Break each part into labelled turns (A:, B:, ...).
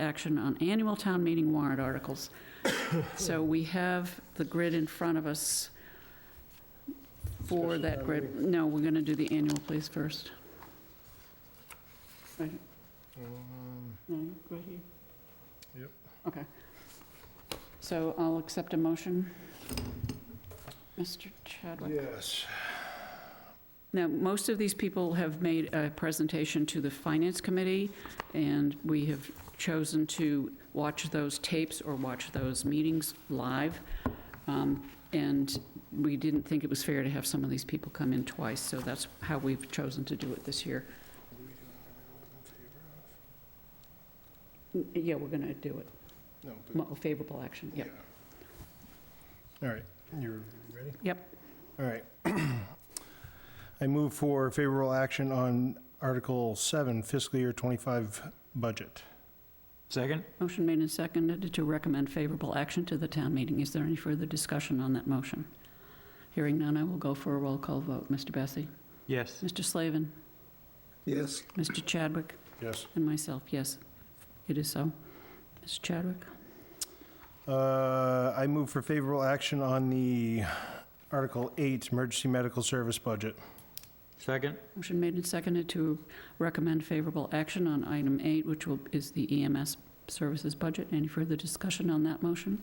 A: action on annual town meeting warrant articles. So we have the grid in front of us for
B: Special
A: that
B: town
A: grid. No, we're going to do the annual, please, first. Right,
B: Um,
A: no, right here?
B: Yep.
A: Okay. So I'll accept a motion. Mr. Chadwick?
B: Yes,
A: Now, most of these people have made a presentation to the Finance Committee, and we have chosen to watch those tapes or watch those meetings live. Um, And we didn't think it was fair to have some of these people come in twice, so that's how we've chosen to do it this year. N- Yeah, we're going to do it.
B: no, but,
A: Mo- Favorable action,
B: yeah.
A: yeah.
B: All right, you're ready?
A: Yep.
B: All right. I move for favorable action on Article 7 fiscal year 25 budget.
C: Second?
A: Motion made and seconded to recommend favorable action to the town meeting. Is there any further discussion on that motion? Hearing none, I will go for a roll call vote. Mr. Bessie?
C: Yes.
A: Mr. Slavin?
B: Yes.
A: Mr. Chadwick?
B: Yes.
A: And myself, yes. It is so. Mr. Chadwick?
B: Uh, I move for favorable action on the Article 8 emergency medical service budget.
C: Second?
A: Motion made and seconded to recommend favorable action on item eight, which will- is the EMS services budget. Any further discussion on that motion?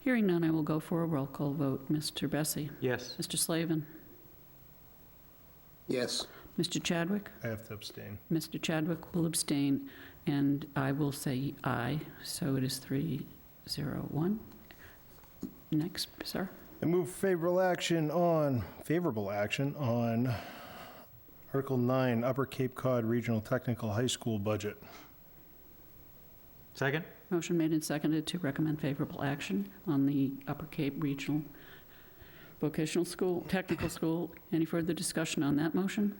A: Hearing none, I will go for a roll call vote. Mr. Bessie?
C: Yes.
A: Mr. Slavin?
D: Yes,
A: Mr. Chadwick?
B: I have to abstain.
A: Mr. Chadwick will abstain, and I will say aye, so it is 301. Next, sir.
B: I move favorable action on, favorable action on Article 9 Upper Cape Cod Regional Technical High School budget.
C: Second?
A: Motion made and seconded to recommend favorable action on the Upper Cape Regional Vocational School, Technical School. Any further discussion on that motion?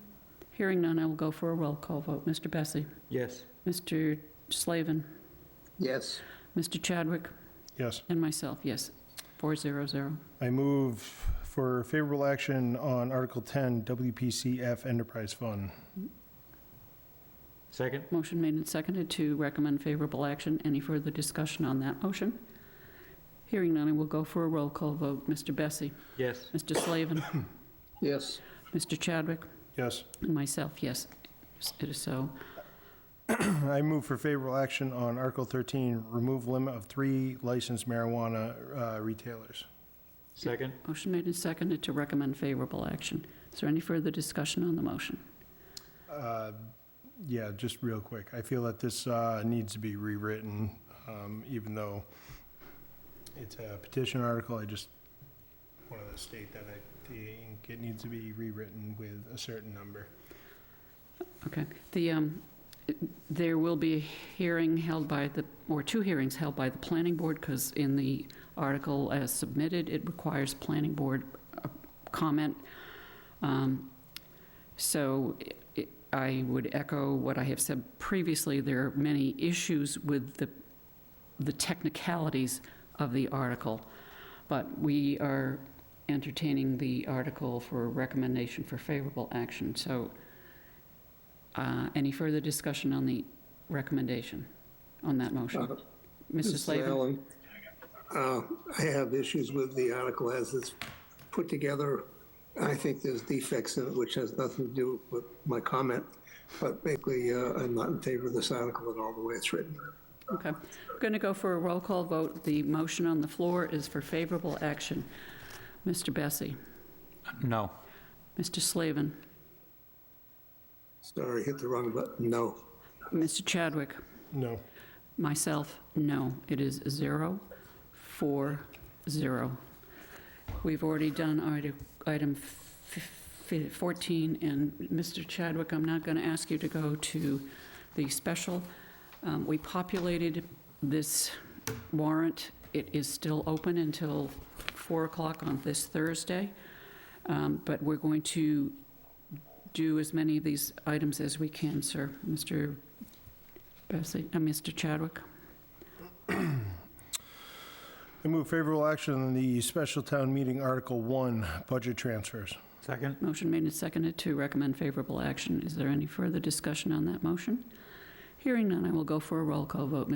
A: Hearing none, I will go for a roll call vote. Mr. Bessie?
C: Yes.
A: Mr. Slavin?
D: yes,
A: Mr. Chadwick?
B: Yes.
A: And myself, yes. 400.
B: I move for favorable action on Article 10 WPCF Enterprise Fund.
C: Second?
A: Motion made and seconded to recommend favorable action. Any further discussion on that motion? Hearing none, I will go for a roll call vote. Mr. Bessie?
C: Yes.
A: Mr. Slavin?
D: yes,
A: Mr. Chadwick?
B: Yes.
A: And myself, yes. It is so.
B: I move for favorable action on Article 13, remove limit of three licensed marijuana uh, retailers.
C: Second?
A: Motion made and seconded to recommend favorable action. Is there any further discussion on the motion?
B: Uh, Yeah, just real quick, I feel that this uh, needs to be rewritten, um, even though it's a petition article, I just wanted to state that I think it needs to be rewritten with a certain number.
A: Okay. The, um, there will be a hearing held by the, or two hearings held by the planning board, because in the article as submitted, it requires planning board uh, comment. Um, So i- I would echo what I have said previously, there are many issues with the, the technicalities of the article, but we are entertaining the article for recommendation for favorable action. So uh, Any further discussion on the recommendation, on that motion?
D: Uh,
A: Mr.
D: Mr.
A: Slavin?
D: Allen, uh, I have issues with the article as it's put together. I think there's defects in it, which has nothing to do with my comment, but basically, uh, I'm not in favor of this article at all, the way it's written.
A: Okay. We're going to go for a roll call vote. The motion on the floor is for favorable action. Mr. Bessie?
C: No.
A: Mr. Slavin?
D: Sorry, hit the wrong button, no.
A: Mr. Chadwick?
B: No.
A: Myself, no. It is zero, four, zero. We've already done ite- item f- f- 14, and Mr. Chadwick, I'm not going to ask you to go to the special. Um, We populated this warrant. It is still open until 4 o'clock on this Thursday, Um, but we're going to do as many of these items as we can, sir. Mr. Bessie, uh, Mr. Chadwick?
B: I move favorable action on the special town meeting Article 1, budget transfers.
C: Second?
A: Motion made and seconded to recommend favorable action. Is there any further discussion on that motion? Hearing none, I will go for a roll call vote.